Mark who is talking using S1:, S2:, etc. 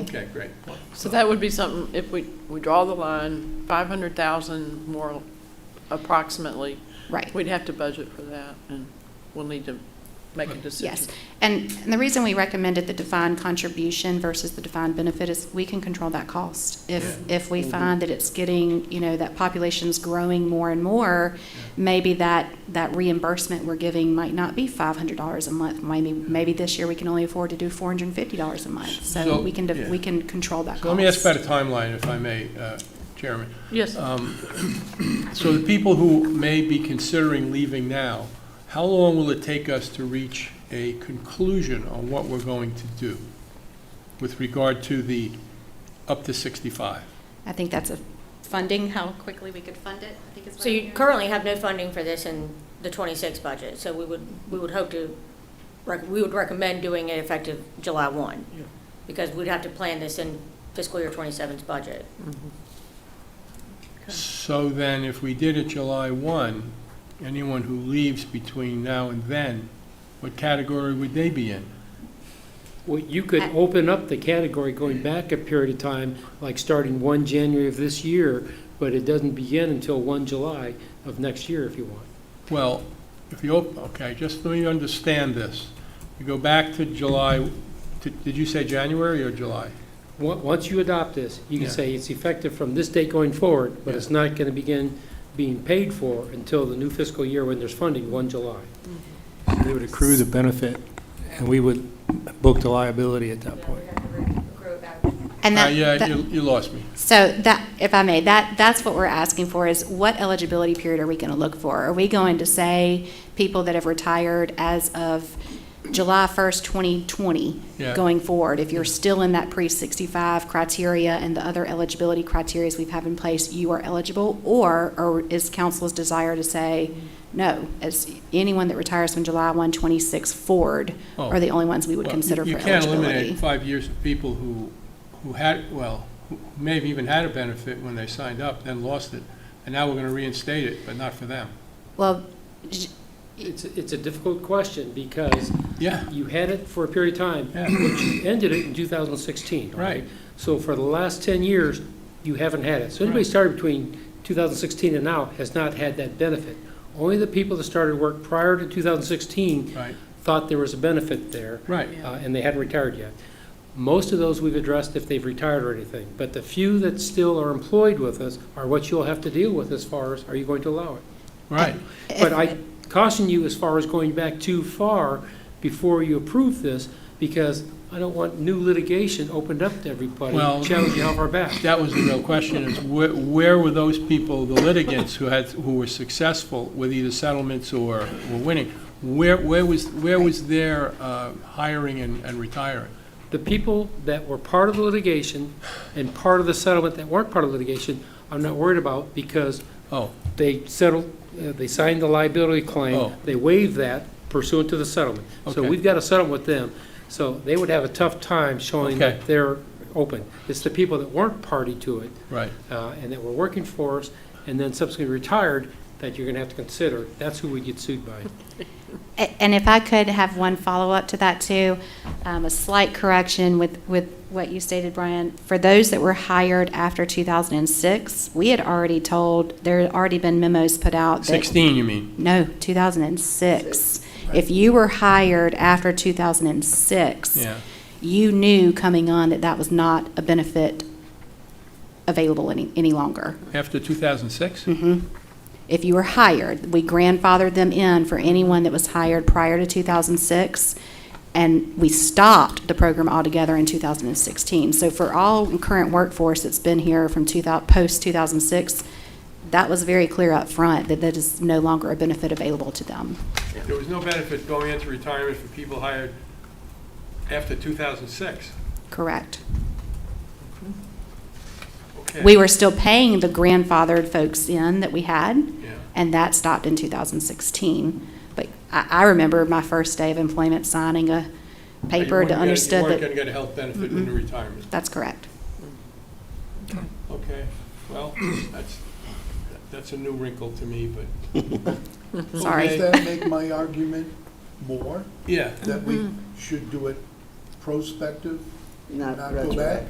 S1: Okay, great.
S2: So that would be something, if we, we draw the line, five hundred thousand more approximately,
S3: Right.
S2: we'd have to budget for that, and we'll need to make a decision.
S3: Yes. And, and the reason we recommended the defined contribution versus the defined benefit is we can control that cost. If, if
S1: Mm-hmm.
S3: we find that it's getting, you know, that population's growing more and more, maybe that, that reimbursement we're giving might not be five hundred dollars a month. Maybe, maybe this year we can only afford to do four hundred and fifty dollars a month.
S1: So-
S3: So we can, de-
S1: yeah.
S3: we can control that cost.
S1: So let me ask about a timeline, if I may, uh, Chairman.
S2: Yes,
S1: Um, So the people who may be considering leaving now, how long will it take us to reach a conclusion on what we're going to do with regard to the up to 65?
S3: I think that's a funding, how quickly we could fund it, I think is what
S4: So
S3: I'm
S4: you
S3: hearing.
S4: currently have no funding for this in the twenty-six budget, so we would, we would hope to, rec- we would recommend doing it effective July one,
S2: Yeah.
S4: because we'd have to plan this in fiscal year 27's budget.
S1: So then, if we did it July 1, anyone who leaves between now and then, what category would they be in?
S5: Well, you could open up the category going back a period of time, like starting one January of this year, but it doesn't begin until one July of next year if you want.
S1: Well, if you, op- okay, just let me understand this. You go back to July, to- did you say January or July?
S5: On- Once you adopt this, you can
S1: Yeah.
S5: say it's effective from this date going forward, but
S1: Yeah.
S5: it's not going to begin being paid for until the new fiscal year when there's funding, one July.
S6: They would accrue the benefit, and we would book the liability at that point.
S3: And
S1: Uh,
S3: that,
S1: Yeah,
S3: that-
S1: you you lost me.
S3: So that, if I may, that, that's what we're asking for is what eligibility period are we going to look for? Are we going to say people that have retired as of July 1st, 2020
S1: Yeah.
S3: going forward? If you're still in that pre-65 criteria and the other eligibility criterias we've have in place, you are eligible? Or, or is council's desire to say, no, as anyone that retires from July 1, 26 forward
S1: Oh.
S3: are the only ones we would
S1: Well,
S3: consider
S1: you-
S3: for
S1: You can't eliminate
S3: eligibility?
S1: five years of people who, who had, well, who may have even had a benefit when they signed up, then lost it, and now we're going to reinstate it, but not for them.
S3: Well, j-
S5: It's, it's a difficult question because
S1: Yeah,
S5: you had it for a period of time,
S1: yeah,
S5: ended it in 2016.
S1: right.
S5: So for the last 10 years, you haven't had it. So anybody
S1: Right.
S5: started between 2016 and now has not had that benefit. Only the people that started work prior to 2016
S1: Right,
S5: thought there was a benefit there,
S1: right.
S5: uh, and they hadn't retired yet. Most of those we've addressed if they've retired or anything, but the few that still are employed with us are what you'll have to deal with as far as, are you going to allow it?
S1: Right,
S5: But I caution you as far as going back too far before you approve this, because I don't want new litigation opened up to everybody,
S1: Well-
S5: challenging how far back.
S1: that was the real question, is where, where were those people, the litigants who had, who were successful with either settlements or were winning? Where, where was, where was their uh, hiring and and retiring?
S5: The people that were part of the litigation and part of the settlement that weren't part of litigation, I'm not worried about, because
S1: Oh,
S5: they settled, uh, they signed the liability
S1: Oh.
S5: claim, they waived that pursuant to the settlement. So
S1: Okay.
S5: we've got a settlement with them, so they would have a tough time showing
S1: Okay.
S5: that they're open. It's the people that weren't party to it
S1: right,
S5: uh, and that were working for us, and then subsequently retired, that you're going to have to consider. That's who we get sued by.
S3: A- And if I could have one follow-up to that, too, um, a slight correction with, with what you stated, Brian. For those that were hired after 2006, we had already told, there had already been memos put out that
S1: 16, you mean?
S3: no, 2006. If you were hired after 2006,
S1: Yeah.
S3: you knew coming on that that was not a benefit available any, any longer.
S1: After 2006?
S3: If you were hired, we grandfathered them in for anyone that was hired prior to 2006, and we stopped the program altogether in 2016. So for all current workforce that's been here from 2000, post-2006, that was very clear up front that that is no longer a benefit available to them.
S1: There was no benefit going into retirement for people hired after 2006.
S3: Correct.
S1: Okay.
S3: We were still paying the grandfathered folks in that we had,
S1: Yeah.
S3: and that stopped in 2016. But I, I remember my first day of employment signing a
S1: But you
S3: paper
S1: weren't
S3: to
S1: gonna-
S3: understood
S1: You weren't going
S3: that,
S1: to get a health benefit in retirement.
S3: that's correct.
S1: Okay, well, that's, that's a new wrinkle to me, but,
S3: Sorry.
S7: Does that make my argument more,
S1: yeah.
S7: that we should do it prospective,
S8: Not
S7: not go
S8: retroactive.
S7: back?